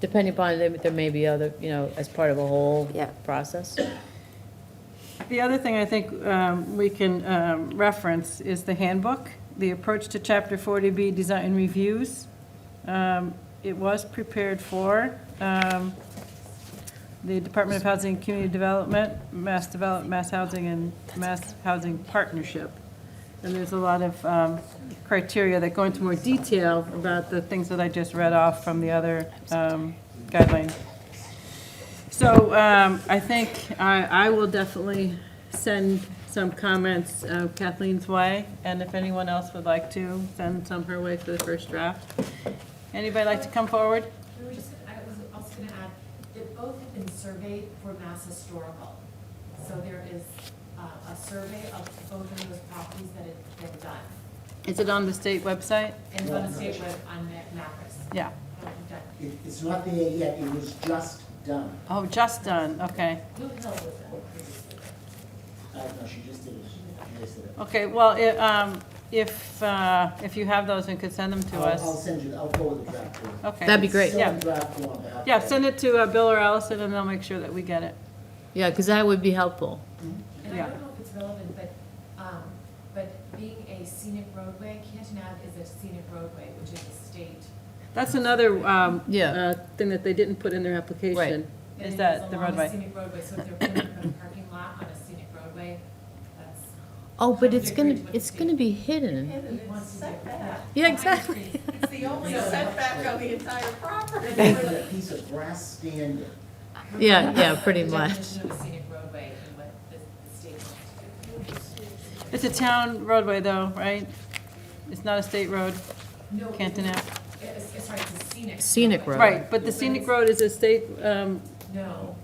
depending upon, there there may be other, you know, as part of a whole Yeah. process. The other thing I think um, we can um, reference is the handbook, the approach to Chapter 40B design reviews. Um, It was prepared for um, the Department of Housing and Community Development, Mass Develop, Mass Housing, and Mass Housing Partnership. And there's a lot of um, criteria that go into more detail about the things that I just read off from the other um, guidelines. So um, I think I I will definitely send some comments uh, Kathleen's way, and if anyone else would like to, send some her way for the first draft. Anybody like to come forward? We were just, I was also gonna add, that both have been surveyed for Mass Historical. So there is uh, a survey of both of those properties that have been done. Is it on the state website? And it's on the state web on Ma- Macris. Yeah. It, it's not there yet, it was just done. Oh, just done, okay. Blue Hill was done previously. I don't know, she just did it, she just did it. Okay, well, i- um, if, uh, if you have those and could send them to I'll- I'll us. send you, I'll forward the draft to her. Okay. That'd be great. It's still Yeah. in draft form, but I'll- Yeah, send it to uh, Bill or Allison, and they'll make sure that we get it. Yeah, because that would be helpful. And Yeah. I don't know if it's relevant, but, um, but being a scenic roadway, Canton Ave is a scenic roadway, which is a state. That's another um, Yeah. uh, thing that they didn't put in their application. and Is it that the along a roadway? Scenic roadway, so if they're putting up a parking lot on a scenic roadway, that's Oh, but it's gonna, it's gonna be hidden. It wants to do that. Yeah, exactly. It's the only setback on the entire property. They put a piece of brass stand in. Yeah, yeah, pretty The much. definition of a scenic roadway and what the the state wants to It's a town roadway though, right? It's not a state road, do. No, Canton Ave. It's, it's right, it's a scenic. Scenic road. Right, but the scenic road is a state, um, No.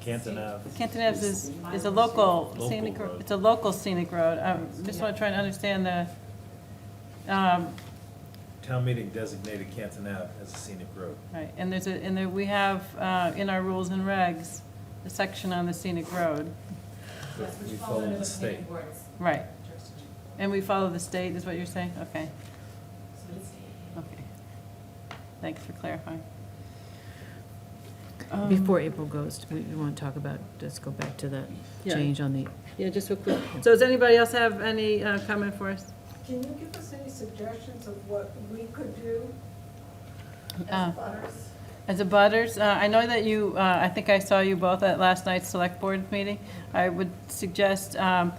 Canton Ave. Canton Ave is, is a local scenic, Local road. it's a local scenic road. I just want to try and understand the, um, Town meeting designated Canton Ave as a scenic road. right, and there's a, and there, we have, uh, in our rules and regs, a section on the scenic road. Yes, We which follow falls under the the state. planning board's Right, jurisdiction. and we follow the state, is what you're saying? Okay, So it's. okay. Thanks for clarifying. Before April goes, we want to talk about, let's go back to that Yeah. change on the, Yeah, just real quick. So does anybody else have any uh, comment for us? Can you give us any suggestions of what we could do Uh, as butters? As a butters, uh, I know that you, uh, I think I saw you both at last night's select board meeting. I would suggest um,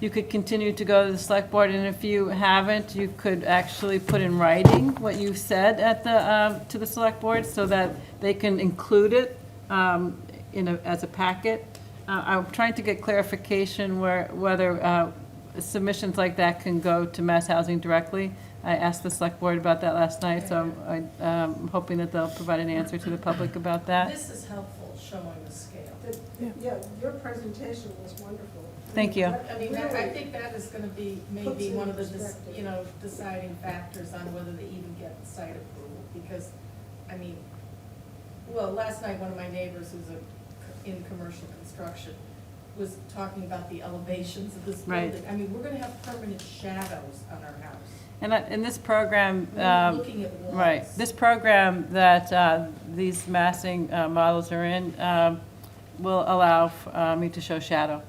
you could continue to go to the select board, and if you haven't, you could actually put in writing what you said at the, um, to the select board, so that they can include it um, in a, as a packet. Uh, I'm trying to get clarification where, whether uh, submissions like that can go to Mass Housing directly. I asked the select board about that last night, so I'm I, um, hoping that they'll provide an answer to the public about that. This is helpful, showing the scale. The- Yeah, your presentation was wonderful. Thank you. That- I mean, that- I think that is going to be maybe Puts it one in of the, dis- perspective. you know, deciding factors on whether they even get the site approval. Because, I mean, well, last night, one of my neighbors who's a- in commercial construction was talking about the elevations of this Right. building. I mean, we're going to have permanent shadows on our house. And that, in this program, We're gonna be um, looking at walls. Right, this program that uh, these massing uh, models are in um, will allow uh, me to show shadow.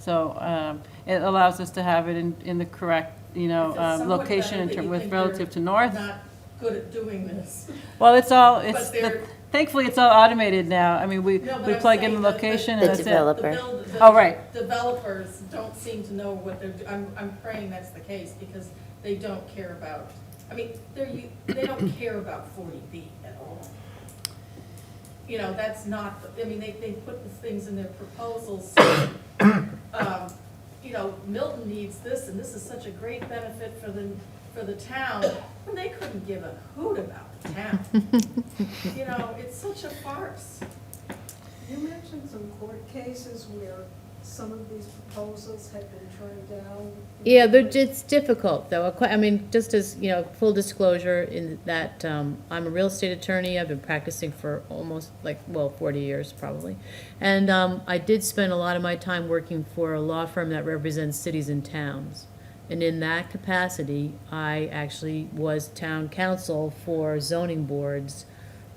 So um, it allows us to have it in, in the correct, you know, If it's um, somewhat location in better, but term you with think they're relative to north. Not good at doing this. Well, it's all, But it's, they're- thankfully, it's all automated now. I mean, we, No, but we I'm plug in the saying the- the- location The and that's it. develop- The Developer. build- the Oh, right. Developers don't seem to know what they're, do- I'm, I'm praying that's the case, because they don't care about, I mean, they're, u- they don't care about forty B at all. You know, that's not, the- I mean, they, they put the things in their proposals, so, um, you know, Milton needs this, and this is such a great benefit for the, for the town, and they couldn't give a hoot about the town. You know, it's such a farce. You mentioned some court cases where some of these proposals had been turned down. yeah, but it's difficult, though. Quite- I mean, just as, you know, full disclosure in that um, I'm a real estate attorney. I've been practicing for almost, like, well, 40 years, probably. And um, I did spend a lot of my time working for a law firm that represents cities and towns. And in that capacity, I actually was town counsel for zoning boards